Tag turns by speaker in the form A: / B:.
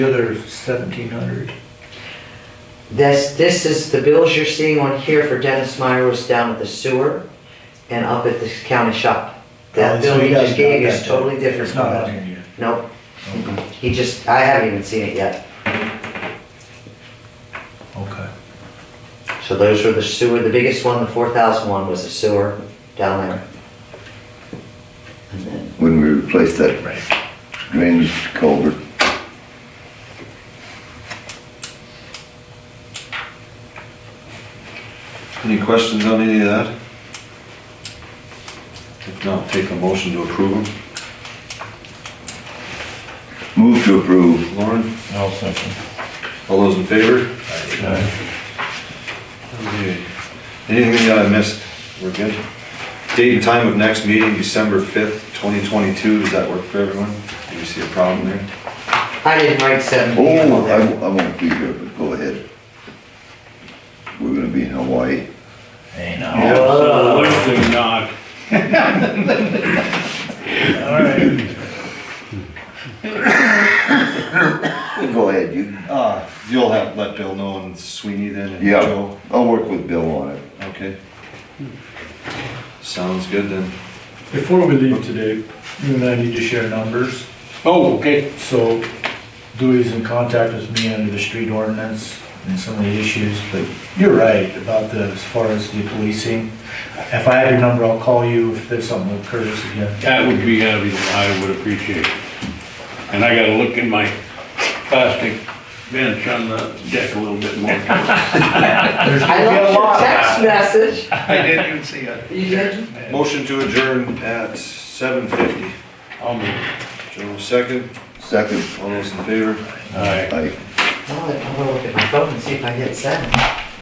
A: The other seventeen hundred.
B: This, this is, the bills you're seeing on here for Dennis Meyer was down at the sewer and up at the county shop.
A: Oh,
B: That bill he just gave you is totally different
A: It's
B: from
A: not on
B: that.
A: here
B: Nope,
A: yet. Okay.
B: he just, I haven't even seen it yet.
A: Okay.
B: So those were the sewer, the biggest one, the four thousand one was the sewer down there. And then
C: when we replaced that
A: Right.
C: drainage culvert.
D: Any questions on any of that? If not, take a motion to approve them.
C: Move to approve.
D: Lauren,
A: I'll second.
D: all those in favor? Okay. Anything that I missed? We're good? Date and time of next meeting, December 5th, 2022. Does that work for everyone? Do you see a problem there?
B: I didn't write seven P M on
C: Oh, I,
B: there.
C: I won't be here, but go ahead. We're gonna be in Hawaii.
A: Hey, now.
E: Absolutely not.
A: All right.
C: Go ahead, you.
A: Ah,
D: Uh, you'll have, let Bill know and Sweeney then and
C: Yeah,
D: Joe.
C: I'll work with Bill on it.
D: Okay. Sounds good then.
A: Before we leave today, you and I need to share numbers.
E: Oh, okay.
A: So Dewey's in contact with me under the street ordinance and some of the issues, but you're right about the, as far as the policing. If I have your number, I'll call you if there's something that occurs again.
E: That would be heavy, I would appreciate it. And I gotta look in my plastic bench on the deck a little bit more.
B: I left your text message.
E: I didn't even see it.
B: You did?
D: Motion to adjourn at 7:50.
E: I'll move.
D: Joe, second.
C: Second,
D: All those in favor?
E: All right.
C: I,
B: Well, I'm gonna look at my phone and see if I hit seven.